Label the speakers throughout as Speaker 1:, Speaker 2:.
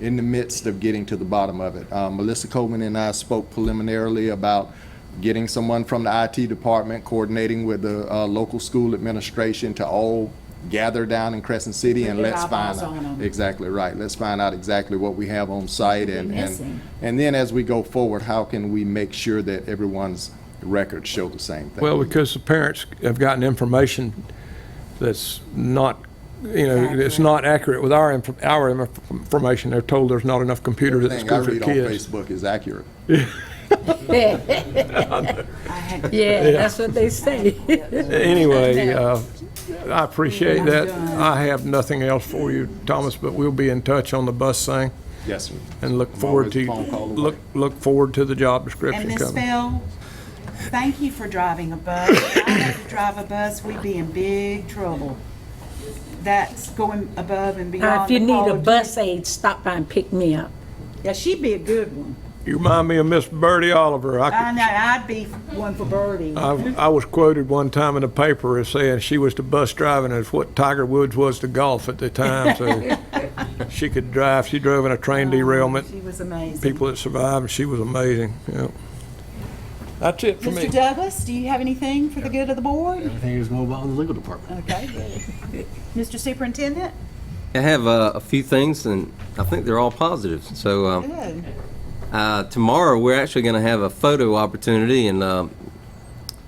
Speaker 1: in the midst of getting to the bottom of it. Um, Melissa Coleman and I spoke preliminarily about getting someone from the IT department, coordinating with the uh, local school administration to all gather down in Crescent City and
Speaker 2: Get
Speaker 1: let's find
Speaker 2: eyeballs on
Speaker 1: out.
Speaker 2: 'em.
Speaker 1: Exactly right. Let's find out exactly what we have on site and,
Speaker 2: They're
Speaker 1: and,
Speaker 2: missing.
Speaker 1: and then as we go forward, how can we make sure that everyone's records show the same thing?
Speaker 3: Well, because the parents have gotten information that's not, you know, it's
Speaker 2: Accurate.
Speaker 3: not accurate with our, inf- our inf- information. They're told there's not enough computers at the
Speaker 1: Everything I
Speaker 3: school for
Speaker 1: read on
Speaker 3: kids.
Speaker 1: Facebook is accurate.
Speaker 4: Yeah, that's what they say.
Speaker 3: Anyway, uh, I appreciate that. I have nothing else for you, Thomas, but we'll be in touch on the bus thing
Speaker 1: Yes, sir.
Speaker 3: and look
Speaker 1: I'm
Speaker 3: forward
Speaker 1: always
Speaker 3: to,
Speaker 1: phone call away.
Speaker 3: look, look forward to the job
Speaker 5: And
Speaker 3: description
Speaker 5: Miss
Speaker 3: coming.
Speaker 5: Bell, thank you for driving a bus. If I had to drive a bus, we'd be in big trouble. That's going above and
Speaker 4: Uh,
Speaker 5: beyond.
Speaker 4: If you
Speaker 5: the
Speaker 4: need
Speaker 5: call
Speaker 4: a
Speaker 5: of
Speaker 4: bus aid, stop by and pick me up.
Speaker 5: duty. Yeah, she'd be a good one.
Speaker 3: You remind me of Miss Birdie Oliver. I could
Speaker 5: I know, I'd be one for Birdie.
Speaker 3: I, I was quoted one time in the paper as saying she was to bus driving as what Tiger Woods was to golf at the time. So she could drive. She drove in a train derailment.
Speaker 5: She was amazing.
Speaker 3: People that survived, and she was amazing. Yeah. That's it for me.
Speaker 5: Mr. Douglas, do you have anything for the good of the board?
Speaker 6: Everything is going well in the legal department.
Speaker 5: Okay, good. Mr. Superintendent?
Speaker 7: I have uh, a few things, and I think they're all positives. So uh,
Speaker 5: Good.
Speaker 7: uh, tomorrow, we're actually going to have a photo opportunity and uh,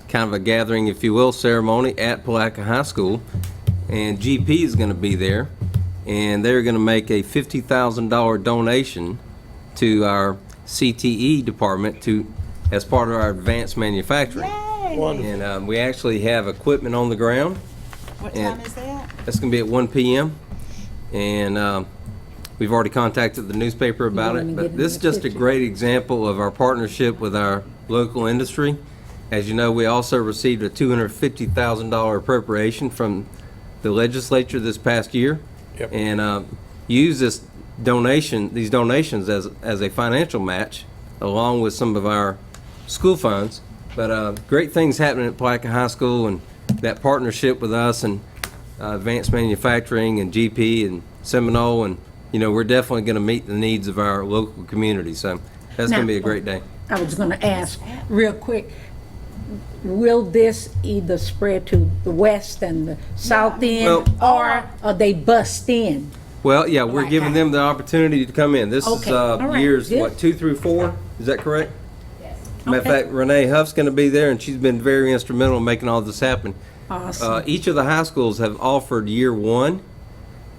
Speaker 7: kind of a gathering, if you will, ceremony at Palaca High School. And GP is going to be there, and they're going to make a $50,000 donation to our CTE department to, as part of our advanced manufacturing.
Speaker 5: Yay!
Speaker 7: And um, we actually have equipment on the ground.
Speaker 5: What
Speaker 7: And-
Speaker 5: time is that?
Speaker 7: That's going to be at 1 PM. And um, we've already contacted the newspaper about
Speaker 4: wanna
Speaker 7: it,
Speaker 4: get
Speaker 7: but
Speaker 4: in
Speaker 7: this is
Speaker 4: the
Speaker 7: just a
Speaker 4: picture.
Speaker 7: great example of our partnership with our local industry. As you know, we also received a $250,000 appropriation from the legislature this past year.
Speaker 3: Yep.
Speaker 7: And uh, use this donation, these donations as, as a financial match, along with some of our school funds. But uh, great things happening at Palaca High School, and that partnership with us and uh, Advanced Manufacturing and GP and Seminole, and, you know, we're definitely going to meet the needs of our local community, so that's going to be a great day.
Speaker 4: I was gonna ask, real quick, will this either spread to the west and the south end?
Speaker 7: Well-
Speaker 4: Or are they bust in?
Speaker 7: Well, yeah, we're giving them the opportunity to come in. This is
Speaker 4: Okay,
Speaker 7: uh,
Speaker 4: all right,
Speaker 7: years,
Speaker 4: good.
Speaker 7: what, two through four? Is that correct? Matter of
Speaker 4: Okay.
Speaker 7: fact, Renee Huff's going to be there, and she's been very instrumental in making all this happen. Uh,
Speaker 4: Awesome.
Speaker 7: Each of the high schools have offered year one,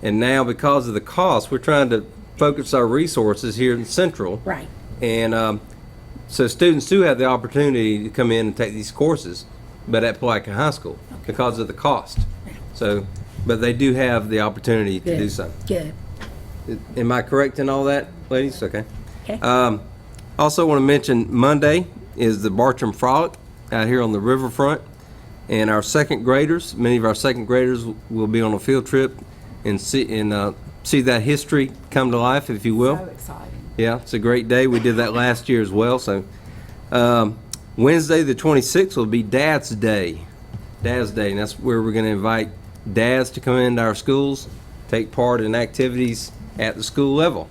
Speaker 7: and now because of the cost, we're trying to focus our resources here in Central.
Speaker 4: Right.
Speaker 7: And um, so students do have the opportunity to come in and take these courses, but at Palaca High School because of the cost. So, but they do have the opportunity to do
Speaker 4: Good.
Speaker 7: so.
Speaker 4: Good.
Speaker 7: Am I correct in all that, ladies? Okay.
Speaker 4: Okay.
Speaker 7: Um, also want to mention Monday is the Bartram Frolic out here on the riverfront. And our second graders, many of our second graders will be on a field trip and see, and, uh, see that history come to life, if you will.
Speaker 2: So exciting.
Speaker 7: Yeah, it's a great day. We did that last year as well. So um, Wednesday, the 26th, will be Dad's Day. Dad's Day, and that's where we're going to invite dads to come into our schools, take part in activities at the school level.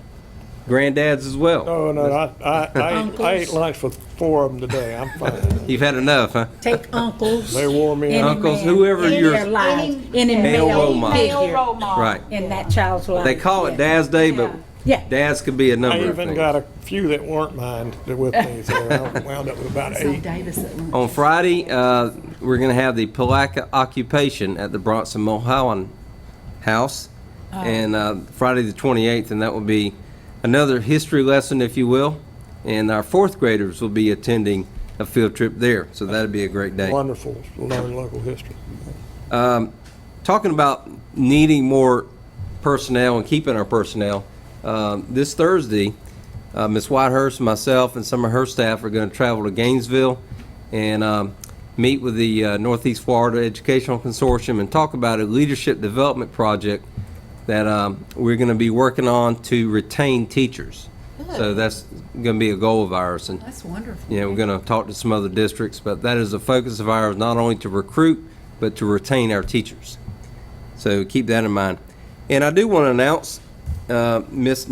Speaker 7: Granddads as well.
Speaker 3: Oh, no, I, I, I, ate, I ate lunch with four of them today. I'm fine.
Speaker 7: You've had enough, huh?
Speaker 4: Take uncles.
Speaker 3: They wore me
Speaker 4: any
Speaker 3: out.
Speaker 7: Uncles,
Speaker 4: man
Speaker 7: whoever
Speaker 4: in
Speaker 7: your-
Speaker 4: their life, Any
Speaker 7: Male role
Speaker 4: male
Speaker 7: model.
Speaker 4: figure
Speaker 5: role model.
Speaker 7: Right.
Speaker 4: in that child's life.
Speaker 7: They call it
Speaker 4: Yeah.
Speaker 7: Dad's Day, but
Speaker 4: Yeah.
Speaker 7: dads could be a
Speaker 3: I
Speaker 7: number of
Speaker 3: even got
Speaker 7: things.
Speaker 3: a few that weren't mine that with me, so I wound up with about eight.
Speaker 2: Davis at lunch.
Speaker 7: On Friday, uh, we're going to have the Palaka occupation at the Bronson Mulholland House, and uh, Friday the 28th, and that will be another history lesson, if you will. And our fourth graders will be attending a field trip there, so that'd be a great day.
Speaker 3: Wonderful, to learn local history.
Speaker 7: Talking about needing more personnel and keeping our personnel, um, this Thursday, uh, Ms. Whitehurst, myself, and some of her staff are going to travel to Gainesville and um, meet with the uh, Northeast Florida Educational Consortium and talk about a leadership development project that um, we're going to be working on to retain teachers. So that's going to be a goal of ours. And
Speaker 2: That's wonderful.
Speaker 7: you know, we're going to talk to some other districts, but that is a focus of ours, not only to recruit, but to retain our teachers. So keep that in mind. And I do want to announce, uh, Ms.